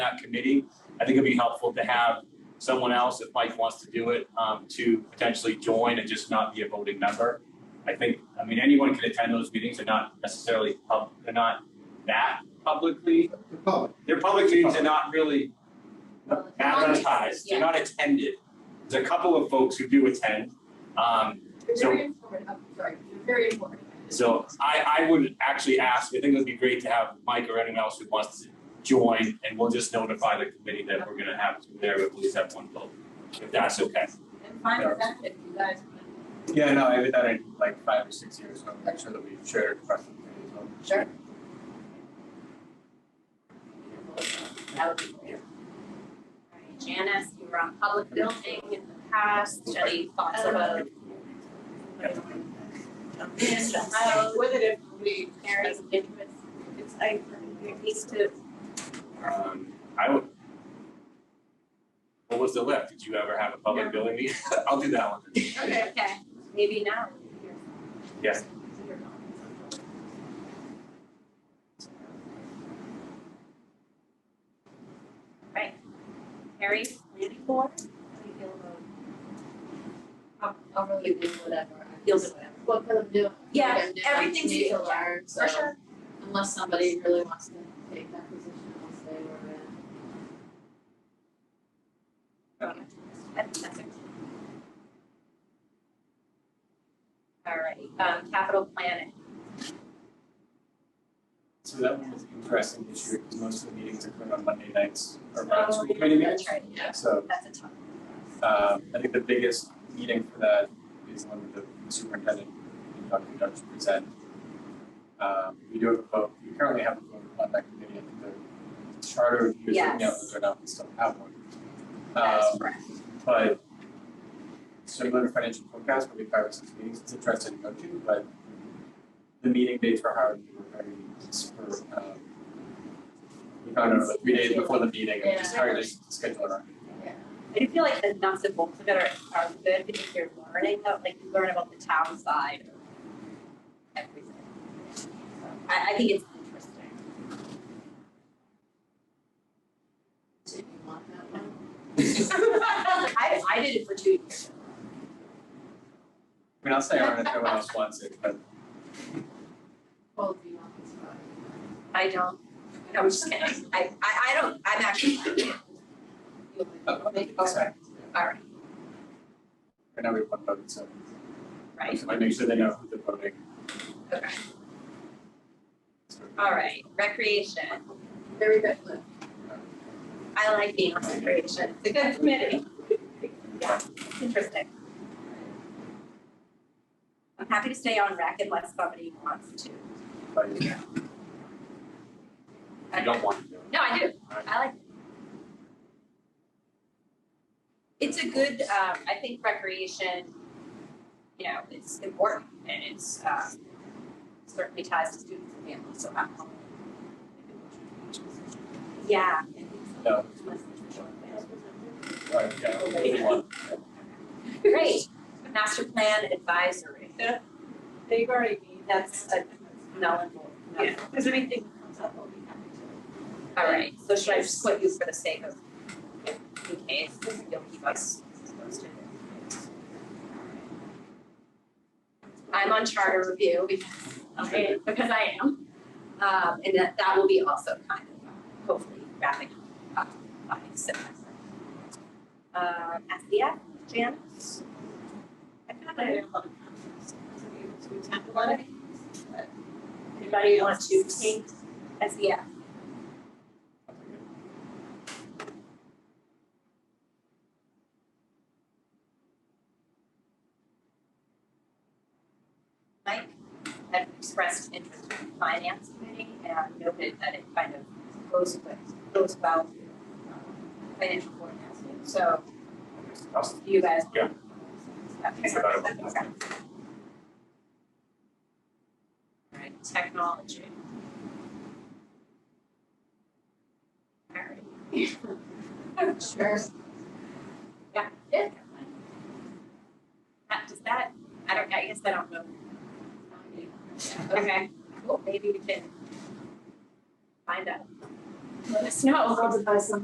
that committee, I think it'd be helpful to have someone else, if Mike wants to do it, um, to potentially join and just not be a voting member. I think, I mean, anyone can attend those meetings, they're not necessarily, pub- they're not that publicly, The public, they're public meetings, they're not really advertised, Yeah. they're not attended. There's a couple of folks who do attend, um, They're So- very informative, I'm sorry, they're very informative. So I, I would actually ask, I think it would be great to have Mike or anyone else who wants to join, and we'll just notify the committee that we're gonna have two there, but at least have one vote, if that's okay. And find the benefit you guys. can- Yeah, no, I've been done it like five or six years, so make sure that we share it across the community as well. Sure. That would be great. Alright, Janice, you were on public building in the past, any thoughts Um, about? I was with it if we, Karen's interest, it's like, needs to. Um, I would. What was the left? Did you ever have a public building meeting? I'll do that one. Okay. Okay, maybe now. Yes. Right. Harry, planning board, how do you feel about? I'll, I'll really do whatever. Deals with whatever. What can I do? Yeah, What can I do? everything's I need to equal. learn, so Unless somebody really wants to take that position, I'll stay where I'm at. I think that's it. All right, um, capital planning, So that one was interesting this year, because most of the meetings occurred on Monday nights or around Oh, school yeah, committee meetings. that's right, yeah. So, that's a tough. um, I think the biggest meeting for that is one with the superintendent and Dr. Dutch present. Um, we do have a vote, we currently have a vote on that committee, I think the charter review is looking at Yes. whether or not we still have one. That Um, is correct. but similar to financial forecast, probably five or six meetings, it's interesting to go to, but the meeting dates were hard, we were very, super, um, we found out about three days before the meeting, and just hard to schedule around. I do feel like the nuts and bolts of it are, are good because you're learning, that, like, you learn about the town side of everything. So, I, I think it's interesting. Do you want that one? I, I did it for two years. I mean, I'll stay on if no one else wants it, but Well, do you want this one? I don't, no, I'm just kidding. I, I, I don't, I'm actually, You'll uh, make it. okay. all right, Right now we have one vote, so I right, just wanna make sure they know who they're voting. okay. So- All right, recreation. Very good, Lynn. uh, I like being on recreation. It's a good committee. Yeah, it's interesting. I'm happy to stay on rec unless somebody wants to. But, yeah. You don't want to do it. No, I do. I like. it. It's a good, um, I think recreation, you know, it's important and it's, um, certainly ties to students and families, so I'm. Yeah. No. All right, yeah, we want- Great, master plan advisory. They've already made that. That's a null and void. Yeah, because anything that comes up, I'll be happy All right, so should I just put you for the sake of, in case, you'll keep us posted. I'm on charter review because, okay, because I am. Um, and that, that will be also kind of hopefully wrapping up by September. Uh, SDF, Janice? I thought I had a lot of conferences. to. We tend to let it. Anybody want to take SDF? Mike had expressed interest in the finance committee and noted that it kind of goes with, goes about um, financial forecasting, so I'll do you guys. Yeah. That makes Think about it. sense. Okay. Alright, technology. Alright. Sure. Yeah. That, does that, I don't, I guess I don't know. Okay, well, maybe we can find out. let us know. I'll buy some